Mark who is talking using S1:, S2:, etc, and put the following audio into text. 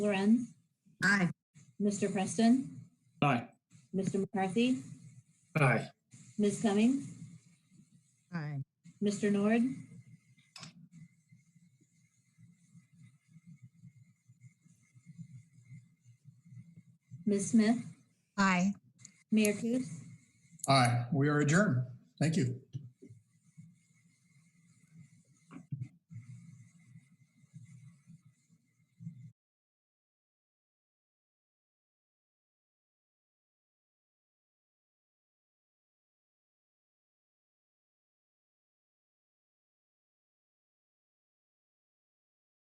S1: Loren,
S2: Aye.
S1: Mr. Preston,
S3: Aye.
S1: Mr. McCarthy,
S3: Aye.
S1: Ms. Cummings,
S2: Aye.
S1: Mr. Nord, Ms. Smith,
S2: Aye.
S1: Mayor Kus.
S4: Aye, we are adjourned. Thank you.